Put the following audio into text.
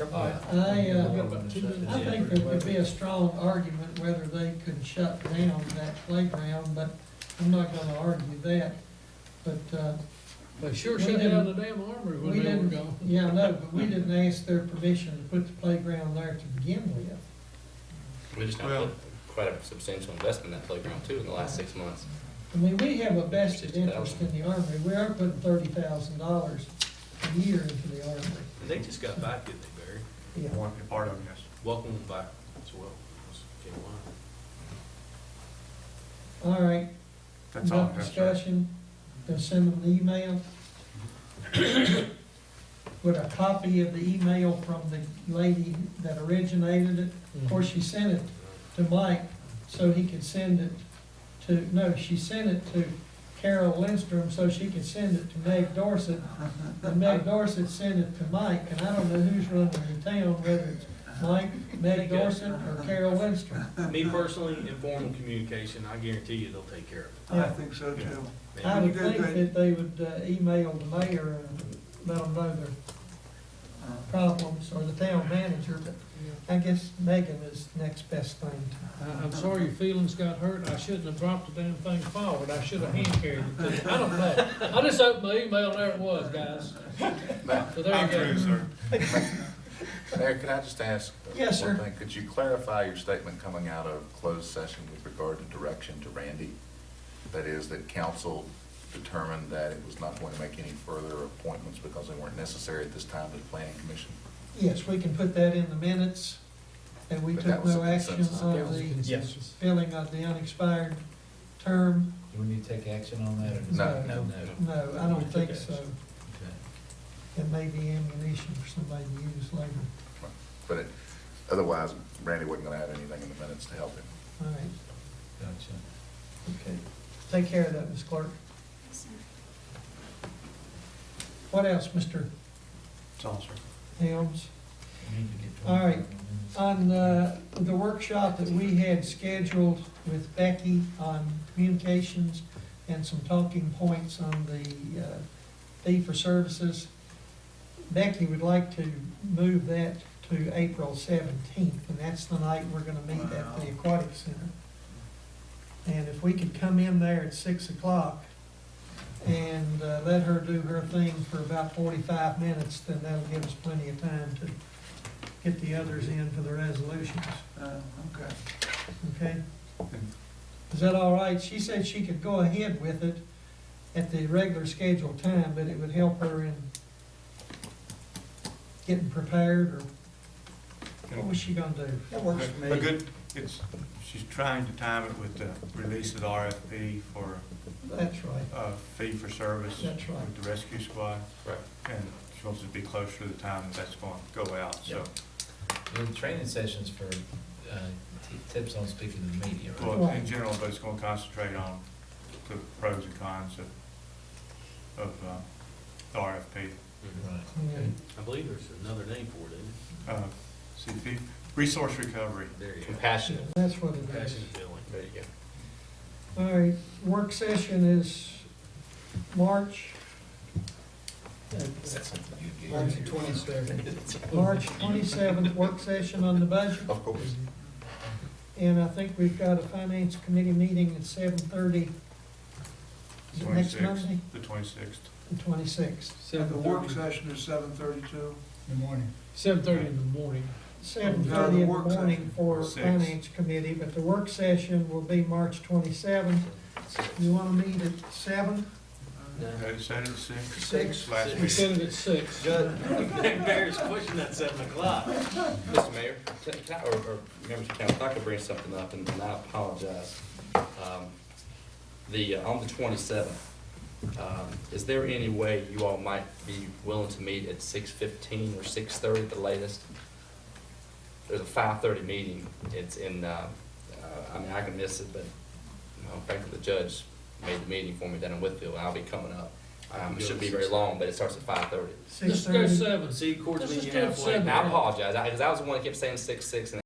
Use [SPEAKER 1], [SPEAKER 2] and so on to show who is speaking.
[SPEAKER 1] All right, I, uh, I think there could be a strong argument whether they could shut down that playground, but I'm not gonna argue that. But, uh,
[SPEAKER 2] They sure
[SPEAKER 1] We
[SPEAKER 2] shut
[SPEAKER 1] didn't-
[SPEAKER 2] down the damn armory
[SPEAKER 1] we
[SPEAKER 2] when they were
[SPEAKER 1] didn't,
[SPEAKER 2] gone.
[SPEAKER 1] yeah, no, but we didn't ask their permission to put the playground there to begin with.
[SPEAKER 3] We just now
[SPEAKER 4] Well-
[SPEAKER 3] put quite a substantial investment in that playground too in the last six months.
[SPEAKER 1] I mean, we have a vested
[SPEAKER 3] 60,000.
[SPEAKER 1] interest in the Armory. We are putting thirty thousand dollars a year into the Armory.
[SPEAKER 5] They just got back, didn't they, Barry?
[SPEAKER 1] Yeah.
[SPEAKER 4] One part of them, yes.
[SPEAKER 5] Welcome them back as well. That's okay, wow.
[SPEAKER 1] All right,
[SPEAKER 4] That's all.
[SPEAKER 1] no
[SPEAKER 4] I have, sir.
[SPEAKER 1] discussion, then send them an email. With a copy of the email from the lady that originated it. Of course, she sent it to Mike, so he could send it to, no, she sent it to Carol Lindstrom, so she could send it to Meg Dorset. And Meg Dorset sent it to Mike, and I don't know who's running the town, whether it's Mike, Meg Dorset, or Carol Lindstrom.
[SPEAKER 4] Uh,
[SPEAKER 5] Me personally, informal communication, I guarantee you they'll take care
[SPEAKER 6] I think so too.
[SPEAKER 5] of it.
[SPEAKER 1] I
[SPEAKER 5] Man,
[SPEAKER 1] would think that they would uh, email the mayor and let them know their problems, or the town manager, but I guess Megan is next best thing to.
[SPEAKER 2] I, I'm sorry your feelings got hurt. I shouldn't have dropped the damn thing forward. I should have hand carried it to you. I don't know. I just opened my email, there it was, guys. So there
[SPEAKER 4] I'm through,
[SPEAKER 2] you go.
[SPEAKER 4] sir.
[SPEAKER 7] Mayor, could I just ask?
[SPEAKER 1] Yes,
[SPEAKER 7] one
[SPEAKER 1] sir.
[SPEAKER 7] thing? Could you clarify your statement coming out of closed session with regard to direction to Randy? That is, that council determined that it was not going to make any further appointments because they weren't necessary at this time to the planning commission?
[SPEAKER 1] Yes, we can put that in the minutes, and we
[SPEAKER 7] But that
[SPEAKER 1] took
[SPEAKER 7] was
[SPEAKER 1] no
[SPEAKER 7] a
[SPEAKER 1] action
[SPEAKER 7] consensus.
[SPEAKER 1] on
[SPEAKER 7] That was a
[SPEAKER 1] the
[SPEAKER 8] Yes.
[SPEAKER 1] filling of the unexpired term.
[SPEAKER 8] Do we need to take action on that? or-
[SPEAKER 7] No.
[SPEAKER 1] No, no, I don't think so. It may be ammunition for somebody to use later.
[SPEAKER 7] But it, otherwise, Randy wasn't going to have anything in the minutes to help him.
[SPEAKER 1] All right,
[SPEAKER 8] Gotcha. Okay.
[SPEAKER 1] take care of that, Ms. Clerk. What else, Mr.
[SPEAKER 4] That's all, sir.
[SPEAKER 1] Helms?
[SPEAKER 8] We need to get
[SPEAKER 1] All right.
[SPEAKER 8] 25 minutes.
[SPEAKER 1] On uh, the workshop that we had scheduled with Becky on communications and some talking points on the uh, fee for services, Becky would like to move that to April seventeenth, and that's the night we're gonna meet at the Aquatic Center. And if we could come in there at six o'clock and uh, let her do her thing for about forty-five minutes, then that'll give us plenty of time to get the others in for the resolutions,
[SPEAKER 6] Uh, Okay.
[SPEAKER 1] okay? Is that all right? She said she could go ahead with it at the regular scheduled time, but it would help her in getting prepared, or what was she gonna do?
[SPEAKER 6] That works for
[SPEAKER 4] But
[SPEAKER 6] me.
[SPEAKER 4] good, it's, she's trying to time it with the release of the RFP for,
[SPEAKER 1] That's right,
[SPEAKER 4] uh, fee for service
[SPEAKER 1] That's right.
[SPEAKER 4] with the rescue squad.
[SPEAKER 5] Right.
[SPEAKER 4] And she wants to be closer to the time that that's going to go out, so.
[SPEAKER 8] The training sessions for, uh, t- tips on speaking to the media, right?
[SPEAKER 4] Well, in general, but it's gonna concentrate on the pros and cons of, of, uh, the RFP.
[SPEAKER 8] Right.
[SPEAKER 1] Yeah.
[SPEAKER 5] I believe there's another name for it, isn't
[SPEAKER 4] Uh, CP, resource recovery.
[SPEAKER 5] it? There you go.
[SPEAKER 3] Compassionate.
[SPEAKER 1] that's what it is.
[SPEAKER 5] Passion feeling.
[SPEAKER 3] There you go.
[SPEAKER 1] All right, work session is March,
[SPEAKER 7] Is that something you'd get?
[SPEAKER 1] March twenty-seventh. March twenty-seventh, work session on the budget.
[SPEAKER 7] Of course.
[SPEAKER 1] And I think we've got a finance committee meeting at seven thirty. Is it next
[SPEAKER 4] 26th,
[SPEAKER 1] Monday?
[SPEAKER 4] The twenty-sixth.
[SPEAKER 1] The twenty-sixth.
[SPEAKER 6] And the work
[SPEAKER 2] 7:30
[SPEAKER 6] session is seven thirty-two.
[SPEAKER 2] Seven thirty in the morning.
[SPEAKER 1] Seven
[SPEAKER 6] No,
[SPEAKER 1] thirty
[SPEAKER 6] the
[SPEAKER 1] in the
[SPEAKER 6] work
[SPEAKER 1] morning
[SPEAKER 6] session.
[SPEAKER 1] for
[SPEAKER 4] Six.
[SPEAKER 1] finance committee, but the work session will be March twenty-seventh. You wanna meet at seven?
[SPEAKER 4] Okay, Saturday, sixth.
[SPEAKER 1] Six.
[SPEAKER 4] Last
[SPEAKER 2] We
[SPEAKER 4] week.
[SPEAKER 2] set it at six.
[SPEAKER 5] Barry's pushing that seven o'clock.
[SPEAKER 3] Mr. Mayor, can- can I- or, or members of council, if I could bring something up, and and I apologize. Um, The, uh, on the twenty-seventh, um, is there any way you all might be willing to meet at six fifteen or six thirty at the latest? There's a five-thirty meeting, it's in, uh, uh, I mean, I can miss it, but, you know, frankly, the judge made the meeting for me down in Whitfield, and I'll be coming up. Um, it shouldn't be very long, but it starts at five-thirty.
[SPEAKER 1] Six
[SPEAKER 2] Let's go
[SPEAKER 1] thirty.
[SPEAKER 2] seven.
[SPEAKER 5] See, court's
[SPEAKER 2] Let's just
[SPEAKER 5] meeting
[SPEAKER 2] do it
[SPEAKER 5] halfway.
[SPEAKER 2] seven.
[SPEAKER 3] And I apologize, because I was the one that kept saying six-six, and